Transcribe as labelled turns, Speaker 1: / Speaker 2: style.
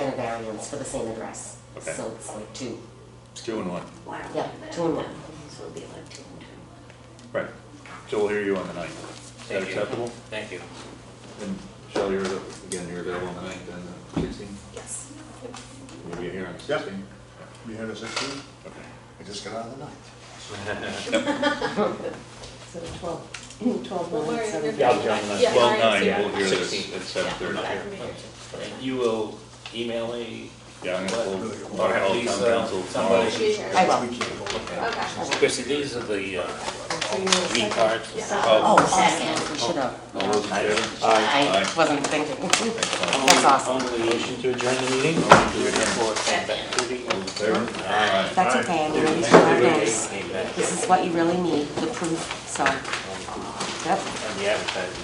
Speaker 1: ambulance for the same address.
Speaker 2: Okay.
Speaker 1: So it's like two,
Speaker 2: It's two and one.
Speaker 3: Wow.
Speaker 1: yeah, two and one.
Speaker 3: So it'll be like two and two.
Speaker 2: Right. So we'll hear you on the ninth. Is that
Speaker 4: Thank you.
Speaker 2: acceptable?
Speaker 4: Thank you.
Speaker 2: And Shelley, you're, av- again, you're available on the ninth and the sixteenth?
Speaker 3: Yes.
Speaker 2: Will you be here on the
Speaker 5: Yep.
Speaker 2: sixteenth?
Speaker 5: You heard us, actually?
Speaker 2: Okay.
Speaker 5: I just got out of the night.
Speaker 1: So twelve, twelve, one, seven.
Speaker 2: Yeah, I'll join us.
Speaker 6: Yeah,
Speaker 2: Twelve
Speaker 6: Marianne's
Speaker 2: nine,
Speaker 6: here.
Speaker 2: we'll hear this
Speaker 4: 16th.
Speaker 2: at seven thirty.
Speaker 4: And you will email me?
Speaker 2: Yeah, I'm
Speaker 4: what-
Speaker 2: gonna pull,
Speaker 5: Really?
Speaker 2: I'll have all
Speaker 4: Please,
Speaker 2: town
Speaker 4: uh,
Speaker 2: council tomorrow.
Speaker 4: somebody-
Speaker 6: She's here.
Speaker 1: I will.
Speaker 5: We can't go.
Speaker 6: Okay.
Speaker 4: Chrissy, these are the, uh,
Speaker 1: So you need a
Speaker 4: green
Speaker 1: second?
Speaker 4: cards.
Speaker 2: Oh.
Speaker 1: Oh, second, we should
Speaker 2: All those in
Speaker 1: have.
Speaker 2: favor?
Speaker 1: I
Speaker 2: Aye.
Speaker 1: wasn't thinking.
Speaker 2: Excellent.
Speaker 1: That's awesome.
Speaker 4: Only motion to adjourn the meeting? Report came back to the-
Speaker 2: All those in favor? Aye.
Speaker 1: That's okay, I'm gonna use my notes.
Speaker 4: Came back,
Speaker 1: This is what you really need, the proof, so. Yep.
Speaker 4: and the advertising.